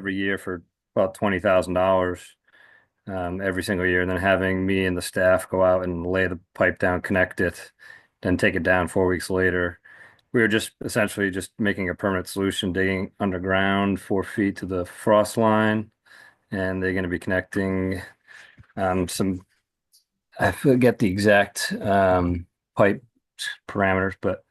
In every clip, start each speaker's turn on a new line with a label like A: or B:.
A: every year for about twenty thousand dollars um, every single year, and then having me and the staff go out and lay the pipe down, connect it, then take it down four weeks later. We were just essentially just making a permanent solution, digging underground four feet to the frost line, and they're going to be connecting um, some. I forget the exact um, pipe parameters, but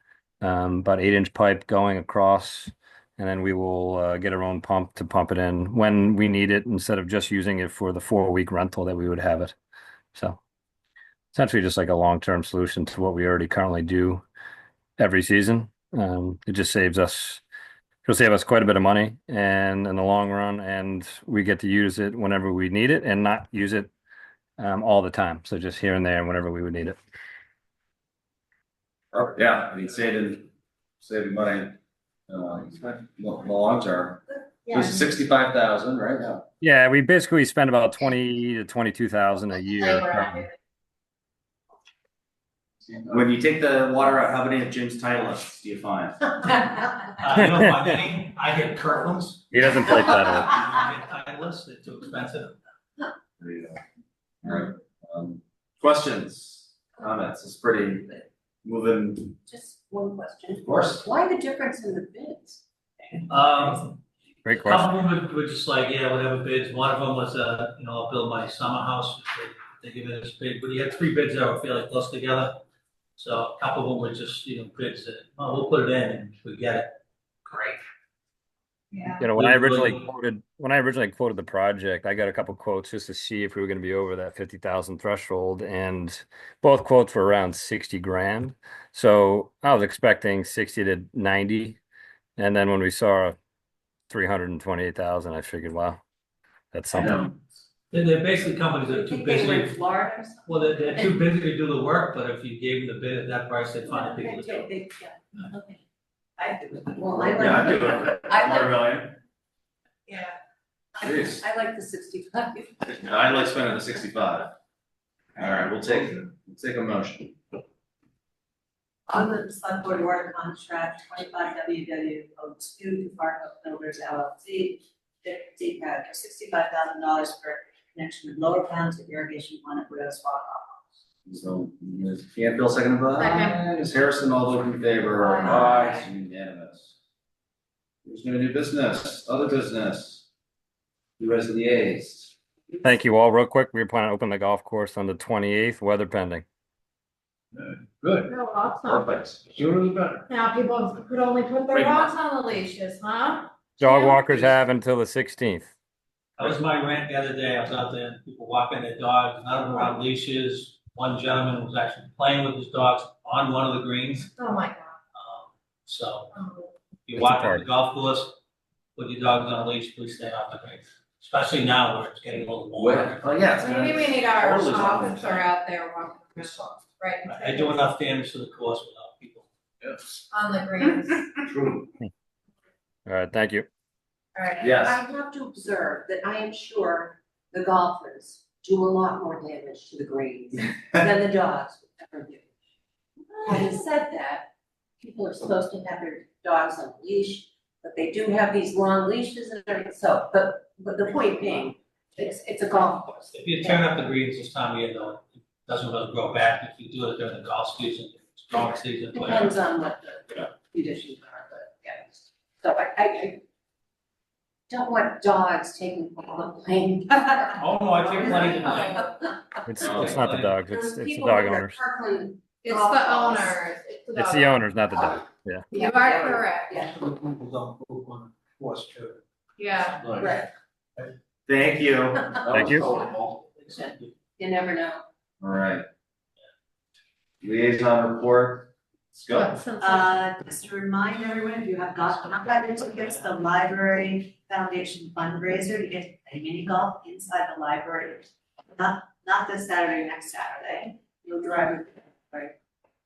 A: um, about eight inch pipe going across and then we will uh, get our own pump to pump it in when we need it instead of just using it for the four week rental that we would have it. So essentially just like a long term solution to what we already currently do every season. Um, it just saves us it'll save us quite a bit of money and in the long run and we get to use it whenever we need it and not use it um, all the time. So just here and there and whenever we would need it.
B: Oh, yeah, I mean, saving, saving money, uh, in the long term.
C: Yeah,
B: This is sixty-five thousand, right? Yeah.
A: Yeah, we basically spend about twenty to twenty two thousand a year. um,
D: When you take the water out, how many of Jim's titleists do you find?
E: Uh, you know, my name, I hit Kirtland's.
A: He doesn't play title.
E: I hit Titleist, they're too expensive.
D: There you go.
B: Right, um,
D: Questions, comments, it's pretty moving,
C: Just one question.
D: of course.
C: Why the difference in the bids?
E: Um, a
A: Great question.
E: couple of them were just like, yeah, whatever bids, one of them was, uh, you know, I'll build my summer house, they, they give it as bid, but you had three bids that were fairly close together. So a couple of them were just, you know, bids that, oh, we'll put it in, and if we get it, great.
C: Yeah.
A: You know, when I
E: Good, good.
A: originally quoted, when I originally quoted the project, I got a couple quotes just to see if we were gonna be over that fifty thousand threshold and both quotes were around sixty grand. So I was expecting sixty to ninety. And then when we saw three hundred and twenty-eight thousand, I figured, wow, that's
D: I
A: something.
D: know.
E: They're, they're basically companies that are too
C: Think they were in
E: busy,
C: Florida or something?
E: well, they're, they're too busy to do the work, but if you gave them the bid at that price, they'd find the people to do
C: Okay,
E: it.
C: they- yeah, okay. I do it. Well, I
D: Yeah, I do
C: like,
D: it.
C: I like-
D: Quarter million.
C: yeah.
D: Jeez.
C: I like the sixty-five.
D: No, I like spending the sixty-five. All right, we'll take, we'll take a motion.
C: On the select board water contract, twenty-five WW O two to Fargo Builders LLC, fifty, uh, sixty-five thousand dollars for connection with lower pounds of irrigation on at Widows Swamp.
D: So Ms. Canfield, second by Ms. Harrison, all those in favor?
C: Aye.
D: It's Unanimous. There's no new business, other business. US liaise.
A: Thank you all. Real quick, we were planning to open the golf course on the twenty-eighth, weather pending.
D: Good,
F: No rocks on.
D: perfect, sooner the better.
F: Now people could only put their
D: Wait.
F: rocks on the leashes, huh?
A: Dog
F: Yeah.
A: walkers have until the sixteenth.
E: That was my rant the other day, I was out there, and people walking their dogs, none of them were on leashes. One gentleman was actually playing with his dogs on one of the greens,
F: Oh my god.
E: um, so
F: Oh.
E: if
A: It's
E: you
A: a
E: walk on
A: party.
E: the golf course, put your dogs on a leash, please stay off the greens. Especially now where it's getting a little warmer.
D: Oh, yeah, it's gonna.
F: Maybe we need our
D: Totally soft.
F: officer out there walking around,
D: It's soft.
F: right,
E: I do enough damage to the course without people.
D: Yes,
F: on the greens,
D: true.
A: All right, thank you.
F: alright.
D: Yes,
C: I have to observe that I am sure the golfers do a lot more damage to the greens than the dogs would ever do. Having said that, people are supposed to have their dogs on a leash, but they do have these long leashes and everything, so, but, but the point being, it's, it's a golf course.
E: If you turn up the greens this time of year though, it doesn't really grow back. If you do it during the golf season, strong season, whatever.
C: Depends on what the conditions are, but, yeah, so I, I, I don't want dogs taking all the blame.
E: Oh, no, I take plenty of blame.
A: It's,
D: Oh,
A: it's not the
E: okay.
A: dogs, it's, it's the dog owners.
F: It's the owners, it's the dog.
A: It's the owners, not the dog.
F: You are correct,
C: Yeah,
E: People don't move on the course too.
F: yeah,
C: right,
D: thank you.
A: Thank you.
C: you never know.
D: Alright. Liaison report, let's go.
F: but since.
C: Uh, just to remind everyone, if you have golf, I'm glad it's against the library foundation fundraiser to get to play mini golf inside the library. Not, not this Saturday, next Saturday, you'll drive, right?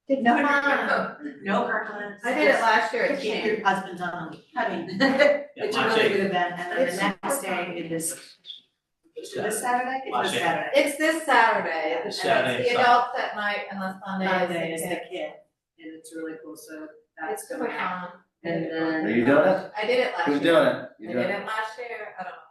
F: It's
C: No, no,
F: fun.
C: no, no Kirkland.
F: I did it last year, it's
C: Keep
F: changed.
C: your husband on, I mean, it's a really good event, and then the
F: It's-
C: next day it is, is it this Saturday? It's
E: Last
C: this
E: year.
C: Saturday.
F: It's this Saturday, and it's
E: Saturday,
F: the
E: Sunday.
F: adults at night and the Sunday is the
C: Monday is the
F: kids.
C: kid, and it's really cool, so that's.
F: It's super fun.
C: And then.
D: Are you doing it?
F: I did it last year.
D: Who's doing it? You
F: I
D: doing it?
F: did it last year, I don't know.